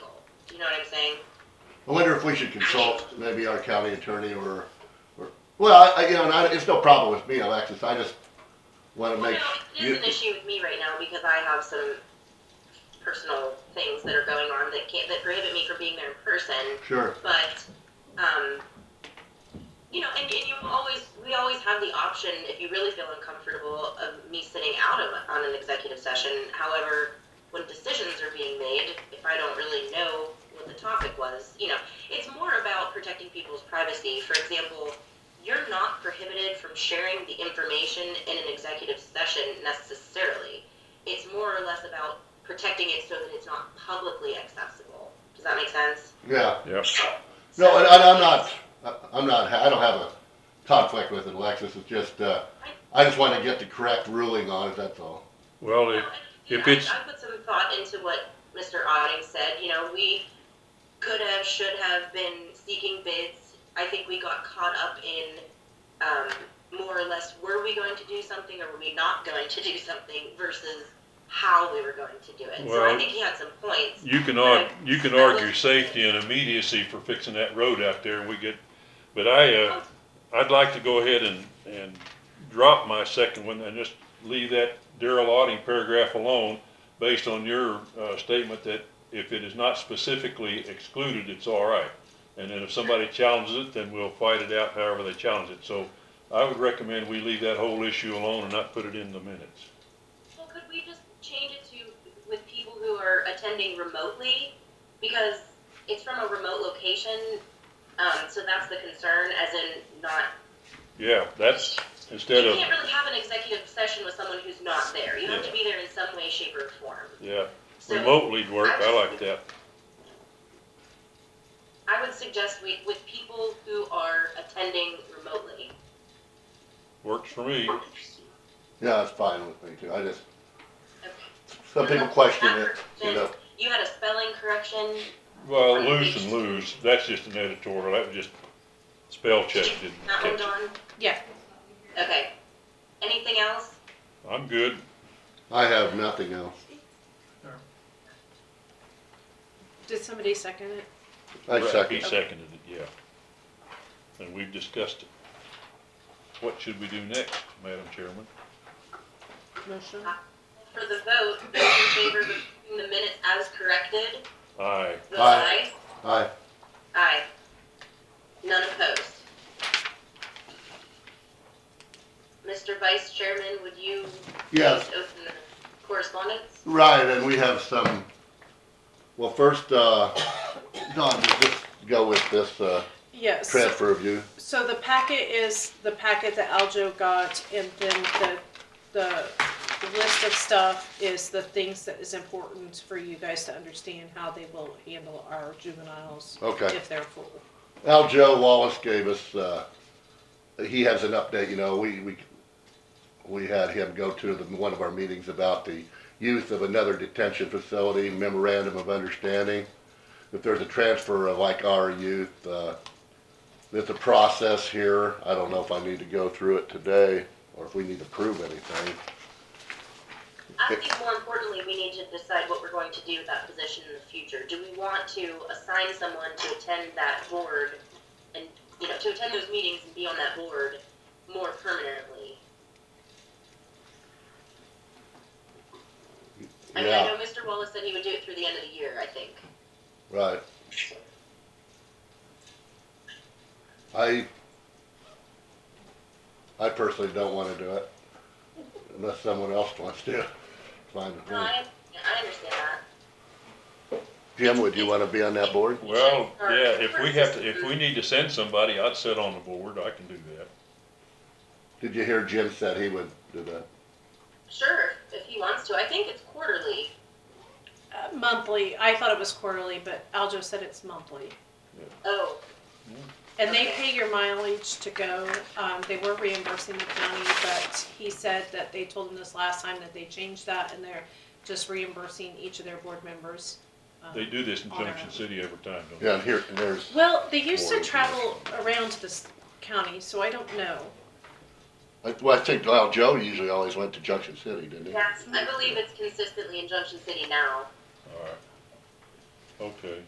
know what I'm saying? I wonder if we should consult maybe our county attorney or, or, well, I, you know, and I, it's no problem with me, Alexis, I just wanna Well, make. no, it you- is an issue with me right now because I have some personal things that are going on that can't, that prohibit me from being there in person. Sure, But, um, you know, and, and you always, we always have the option, if you really feel uncomfortable, of me sitting out of, on an executive session. However, when decisions are being made, if I don't really know what the topic was, you know, it's more about protecting people's privacy. For example, you're not prohibited from sharing the information in an executive session necessarily. It's more or less about protecting it so that it's not publicly accessible. Does that make sense? yeah, Yep. no, and, and I'm not, I- I'm not, I don't have a conflict with it, Alexis, it's just, uh, I just wanna get the correct ruling on it, that's all. Well, Well, it, and, if you know, it's- I, I put some thought into what Mr. Otting said. You know, we could have, should have been seeking bids. I think we got caught up in um, more or less were we going to do something or were we not going to do something versus how we were going to do it. so I Well- think he had some points. you can argue, you can argue safety and immediacy for fixing that road out there and we get, but I, uh, I'd like to go ahead and, and drop my second one and just leave that Daryl Auding paragraph alone based on your, uh, statement that if it is not specifically excluded, it's all right. And then if somebody challenges it, then we'll fight it out however they challenge it. So I would recommend we leave that whole issue alone and not put it in the minutes. Well, could we just change it to with people who are attending remotely? Because it's from a remote location. Um, so that's the concern, as in not Yeah, that's, instead You of, can't really have an executive session with someone who's not there. You have to be there in some way, shape, or form. yeah, So remotely'd work, I like that. I would suggest we, with people who are attending remotely. Works for me. Yeah, that's fine with me too, I just, Okay. some people question it, you know, You had a spelling correction. Well, lose and lose, that's just an editorial, that was just spell check, didn't That one, catch it. Dawn? Yeah. Okay. Anything else? I'm good. I have nothing else. Did somebody second it? I Right, second. He seconded it, yeah. And we've discussed it. What should we do next, Madam Chairman? Motion? For the vote, those in favor of approving the minutes as corrected, Aye, vote Aye. aye. Aye. Aye. None opposed. Mr. Vice Chairman, would you Yes, please open the correspondence? right, and we have some, well, first, uh, Don, just go with this, uh, Yes. transfer review. So the packet is the packet that Aljo got, and then the, the list of stuff is the things that is important for you guys to understand how they will handle our juveniles Okay. if they're full. Al Joe Wallace gave us, uh, he has an update, you know, we, we, we had him go to the, one of our meetings about the use of another detention facility memorandum of understanding. If there's a transfer of like our youth, uh, there's a process here. I don't know if I need to go through it today or if we need to prove anything. I think more importantly, we need to decide what we're going to do with that position in the future. Do we want to assign someone to attend that board and, you know, to attend those meetings and be on that board more permanently? I mean, I Yeah, know Mr. Wallace said he would do it through the end of the year, I think. right. I, I personally don't wanna do it unless someone else wants to. Fine with No, me. I, I understand that. Jim, would you wanna be on that board? well, yeah, if we have to, if we need to send somebody, I'd sit on the board, I can do that. Did you hear Jim said he would do that? Sure, if he wants to. I think it's quarterly. Uh, monthly, I thought it was quarterly, but Aljo said it's monthly. Oh, And they Okay. pay your mileage to go, um, they were reimbursing the county, but he said that they told him this last time that they changed that and they're just reimbursing each of their board members. um, They do this in Junction City every time, don't they? Yeah, and here, and there's, Well, they used Board to of travel around to this county, so I don't know. I- well, I think, well, Joe usually always went to Junction City, didn't he? that's, I believe it's consistently in Junction City now. All right. Okay,